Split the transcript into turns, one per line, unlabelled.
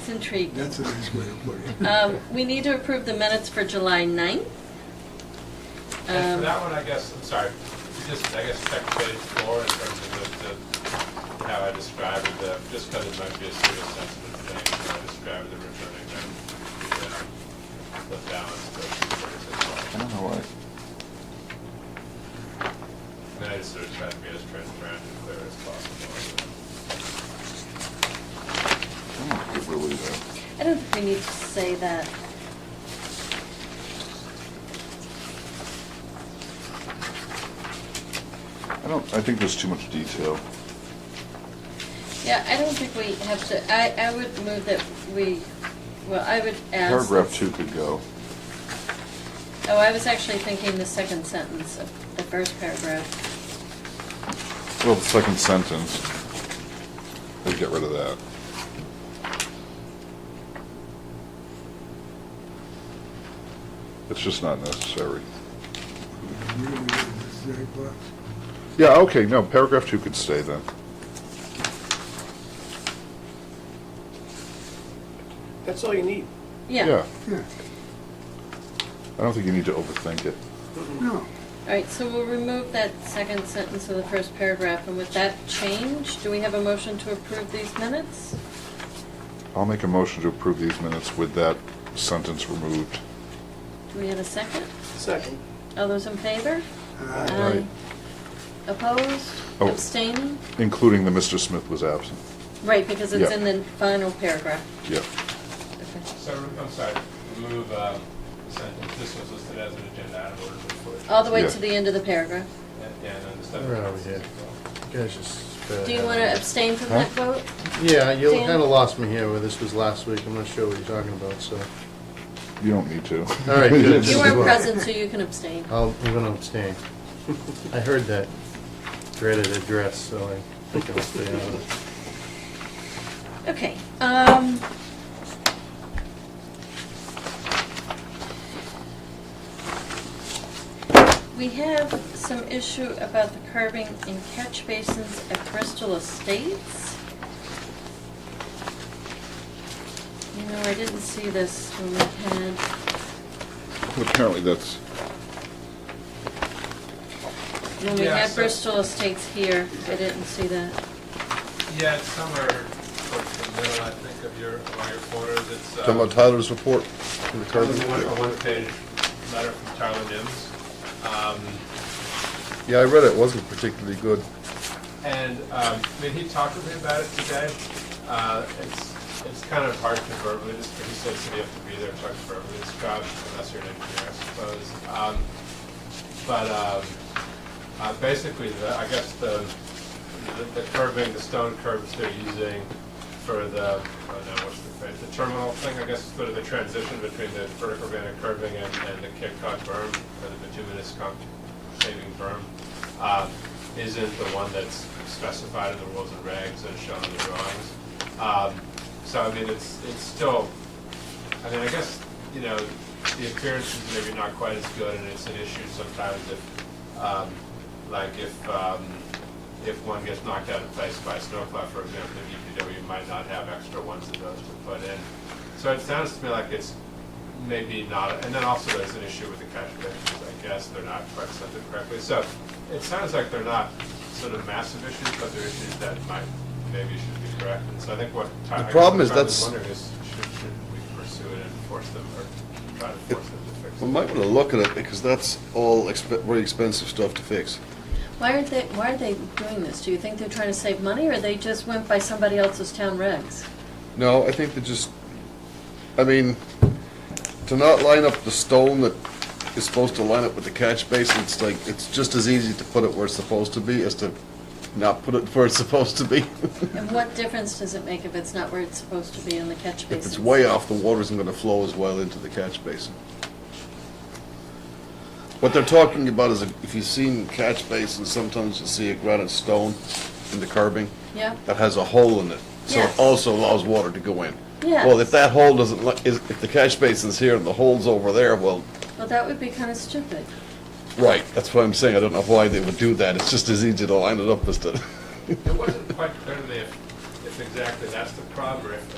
That's intriguing.
That's a nice way to put it.
Um, We need to approve the minutes for July 9th.
And for
Um,
that one, I guess, I'm sorry, just, I guess, check page four in terms of the, the, how I described the, just because it might be a serious sensitive thing, how I described the return income, the, the balance, the
I don't know what.
Uh-huh.
And then I just sort of tried to be as transparent and clear as possible.
I don't think we're losing.
I don't think we need to say that.
I don't, I think there's too much detail.
Yeah, I don't think we have to, I, I would move that we, well, I would ask.
Paragraph two could go.
Oh, I was actually thinking the second sentence of the first paragraph.
Well, the second sentence, we get rid of that. It's just not necessary.
You don't need this exact box.
Yeah, okay, no, paragraph two could stay then.
That's all you need.
Yeah.
Yeah,
I don't think you need to overthink it.
no,
All right, so we'll remove that second sentence of the first paragraph, and with that change, do we have a motion to approve these minutes?
I'll make a motion to approve these minutes with that sentence removed.
Do we have a second?
Second.
All those in favor?
uh,
Aye.
Opposed?
Oh.
Abstaining?
Including the Mr. Smith was absent.
Right, because it's
Yeah.
in the final paragraph.
Yeah.
Okay.
So, I'm sorry, remove, um, the sentence, this was listed as an agenda item order before.
All the way
Yeah.
to the end of the paragraph.
And, and then the stuff.
Where are we here? You guys just. uh,
Do you want to abstain from that vote?
Yeah, you
Dan?
kinda lost me here where this was last week. I'm not sure what you're talking about, so.
You don't need to.
All right, good.
You
Just
are
vote.
present, so you can abstain.
I'll, I'm gonna abstain. I heard that dreaded address, so I think I'll stay out of it.
Okay, um. We have some issue about the curbing in catch basins at Bristol Estates. You know, I didn't see this when we had,
Apparently that's,
when we
Yeah,
had
so-
Bristol Estates here, I didn't see that.
Yeah, it's somewhere towards the middle, I think, of your, of your quarters, it's, uh.
talking about Tyler's report? from the
It was
Cardinals?
a one- a one-page letter from Tyler Dims. Um,
Yeah, I read it, It wasn't particularly good.
And, um, I mean, he talked with me about it today. Uh, It's, it's kind of hard to verbally describe, he says that you have to be there to verbally describe unless you're an engineer, I suppose. Um, But um, uh, basically, the- I guess the, the- the curving, the stone curves they're using for the, oh no, what's the, phrase? the terminal thing, I guess, sort of the transition between the vertical granite curving and, and the Cape Cod berm, or the bituminous con- shaving berm, um, isn't the one that's specified in the rules and regs and shown in the drawings. Um, So I mean, it's, it's still I mean, I guess, you know, the appearance is maybe not quite as good, and it's an issue sometimes if, um, like if, um, if one gets knocked out of place by a snowplow, for example, the DPW might not have extra ones of those to put in. So it sounds to me like it's maybe not, and then also there's an issue with the catch basins, I guess, they're not quite set up correctly. So it sounds like they're not sort of massive issues, but they're issues that might, maybe should be corrected. So I think what. Ty- I guess
problem is
what Tyler's
that's-
wondering is should, should we pursue it and force them or try to force them to fix it?
We might want to look at it because that's all exp- very expensive stuff to fix.
Why aren't they, why are they doing this? Do you think they're trying to save money, or they just went by somebody else's town regs?
No, I think they just, I mean, to not line up the stone that is supposed to line up with the catch basin, it's like, it's just as easy to put it where it's supposed to be as to not put it where it's supposed to be.
And what difference does it make if it's not where it's supposed to be in the catch basin?
If it's way off, the water isn't gonna flow as well into the catch basin. What they're talking about is, if you've seen catch basins, sometimes you see a granite stone in the curbing.
Yeah,
that has a hole in it, so
Yes.
it also allows water to go in.
Yes.
Well, if that hole doesn't, li- is- if the catch basin's here and the hole's over there, well,
well, that would be kind of stupid.
right, that's what I'm saying, I don't know why they would do that, it's just as easy to line it up as to.
It wasn't quite clear to me if, if exactly that's the problem or if